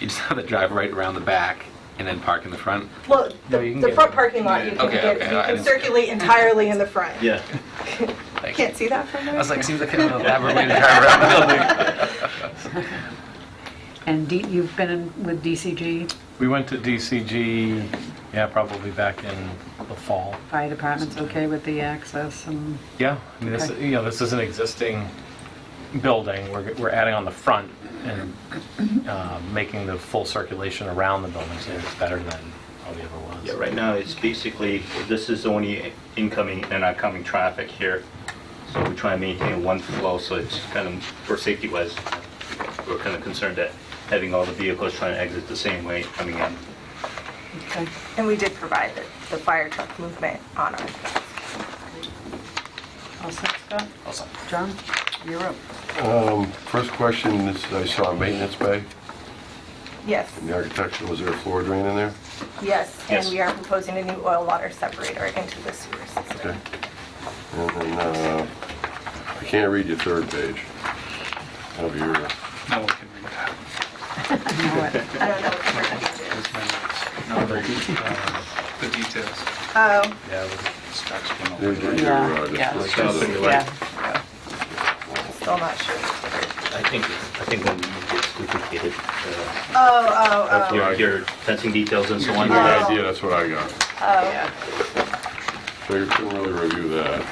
You just have to drive right around the back and then park in the front? Well, No, the, you can the get front it. parking lot, you can Okay, get, okay, you I can didn't- circulate entirely in the front. Yeah. Like- Can't see that from there? I was like, seems like an elaborate way to drive around the building. And D- you've been in with DCG, We went to DCG, yeah, probably back in the fall. fire department's okay with the access and, Yeah, I mean, this, Okay. you know, this is an existing building, we're, we're adding on the front and uh, making the full circulation around the building, so it's better than probably ever was. Yeah, right now, it's basically, this is only incoming and outgoing traffic here. So we try and maintain one flow, so it's kind of, for safety wise, we're kind of concerned that having all the vehicles trying to exit the same way coming in. okay. And we did provide the, the fire truck movement on our, All set, Scott? All set. John, you're up. Um, First question is, I saw a maintenance bay yes, in the architectural, is there a floor drain in there? yes. And Yes. we are proposing a new oil water separator into the sewer system. Okay. And then, uh, I can't read your third page of your, No one can read that. You know it. I don't know what the verbiage is. It's my notes. Not very, uh, The details. Oh, Yeah, it was- Specs went over. your, your, Yeah, uh, yeah. this- Something this- like- Yeah. still not sure. I think, I think when it gets duplicated, uh, Oh, oh, oh. your- your fencing details and so on. Good idea, that's what I got. Yeah. So you couldn't really review that.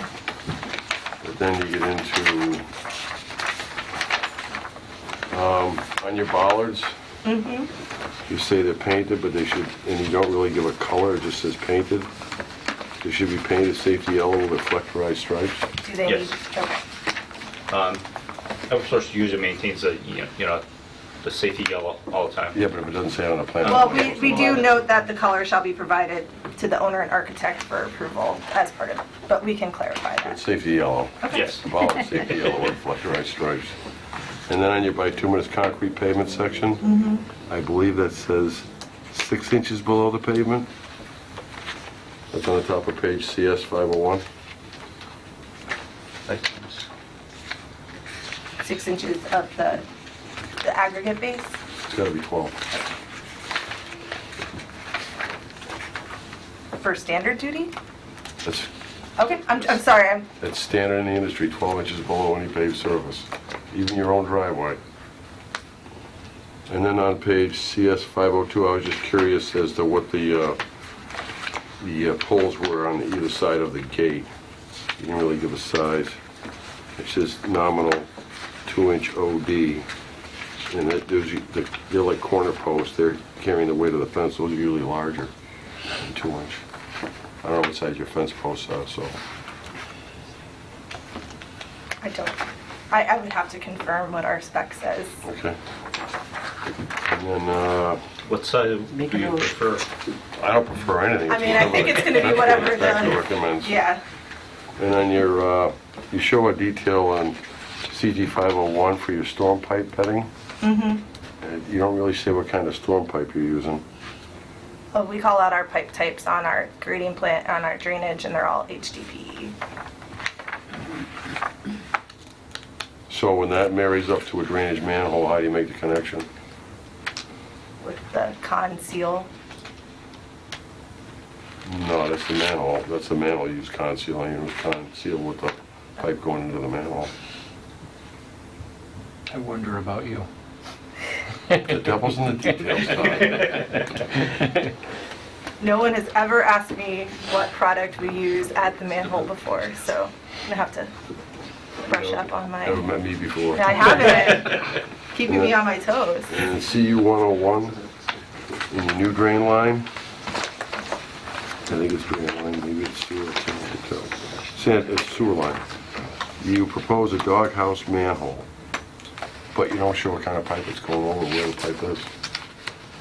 But then you get into, um, on your bollards, Mm-hmm. you say they're painted, but they should, and you don't really give a color, it just says painted. They should be painted safety yellow with reflectorized stripes. Do they need, Yes. okay. Eversource usually maintains a, you know- you know, the safety yellow all the time. Yeah, but if it doesn't say it on a Um, plan. Well, we, we do note that the color shall be provided to the owner and architect for approval as part of, but we can clarify It's that. safety yellow. Yes. The bollard, safety yellow with reflectorized stripes. And then on your bituminous concrete pavement section, I believe that says six inches below the pavement. That's on the top of page CS 501. Six inches of the, the aggregate base. It's gotta be 12. for standard duty? That's, Okay, I'm, I'm sorry, I'm, that's standard in the industry, 12 inches below any paved surface, even your own driveway. And then on page CS 502, I was just curious as to what the, uh, the uh, poles were on either side of the gate. You didn't really give a size. It says nominal two-inch OD, and that, those you- the- they're like corner posts, they're carrying the weight of the fence, those are usually larger than two-inch. I don't know what size your fence posts are, so. I don't, I, I would have to confirm what our spec says. Okay. And then, uh, What side Make do a you note. prefer? I don't prefer anything. I mean, I think it's gonna be whatever the- Inspector recommends. Yeah, And then your, uh, you show a detail on CG 501 for your storm pipe bedding. Mm-hmm. You don't really say what kind of storm pipe you're using. well, we call out our pipe types on our grading plant, on our drainage, and they're all HDPE. So when that marries up to a drainage manhole, how do you make the connection? with the con seal. No, that's the manhole, that's the manhole you use conceal, you use conceal with the pipe going into the manhole. I wonder about you. The devil's in the details, Tom. No one has ever asked me what product we use at the manhole before, so I'm gonna have to brush up on my, Never met me before. No, I haven't, keeping me on my toes. And CU 101, in the new drain line, I think it's drain line, maybe it's sewer, I can't really tell. Said it's sewer line. You propose a doghouse manhole, but you don't show what kind of pipe it's going over, where the pipe is.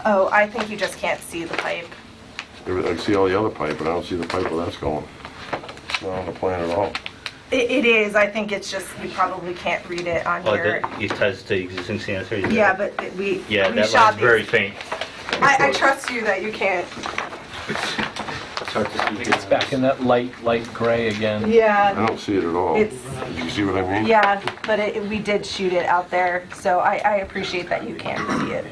Oh, I think you just can't see the pipe. There- I see all the other pipe, but I don't see the pipe where that's going. It's not on the plan at all. It, it is, I think it's just, you probably can't read it on Oh, here. that, it ties to existing sanitary. Yeah, but it- we, we Yeah, that shot line's these. very faint. I, I trust you that you can't, It's hard to see. It's back in that light, light gray again. I yeah, don't see it at all. It's- You see what I mean? yeah, but it, we did shoot it out there, so I, I appreciate that you can't see it.